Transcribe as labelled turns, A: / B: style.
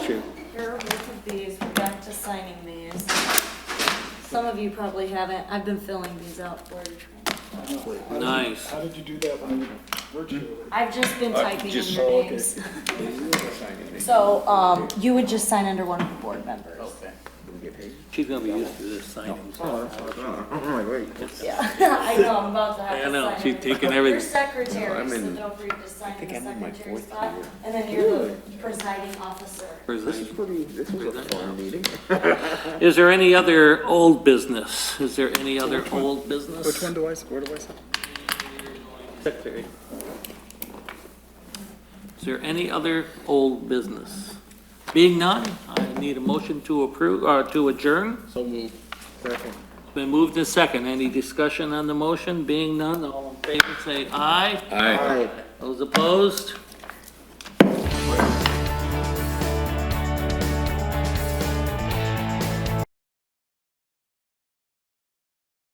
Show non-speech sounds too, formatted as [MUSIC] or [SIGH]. A: True.
B: Here are both of these, we're back to signing these. Some of you probably haven't, I've been filling these out for you.
C: Nice.
D: How did you do that when you
A: um,
D: virtually?
B: I've just been typing in
A: just-
B: your
A: oh, okay.
B: names. So, um, you would just sign under one of the board members.
C: She's gonna be used to this signing.
B: Yeah, [LAUGHS] I know, I'm about to have to
C: I
B: sign.
C: know, she's
B: everything.
C: taking
B: You're
C: everything.
B: secretary, so don't forget to sign in the secretary spot, and then you're the presiding officer.
A: This is pretty, this was a fun meeting.
C: Is there any other old business? Is there any other old business?
A: Which one do I, where do I sign?
C: Secretary. Is there any other old business? Being none, I need a motion to approve, or to adjourn.
A: So moved. Second.
C: Been moved to second. Any discussion on the motion? Being none, all in favor, say aye.
A: Aye.
C: Those opposed?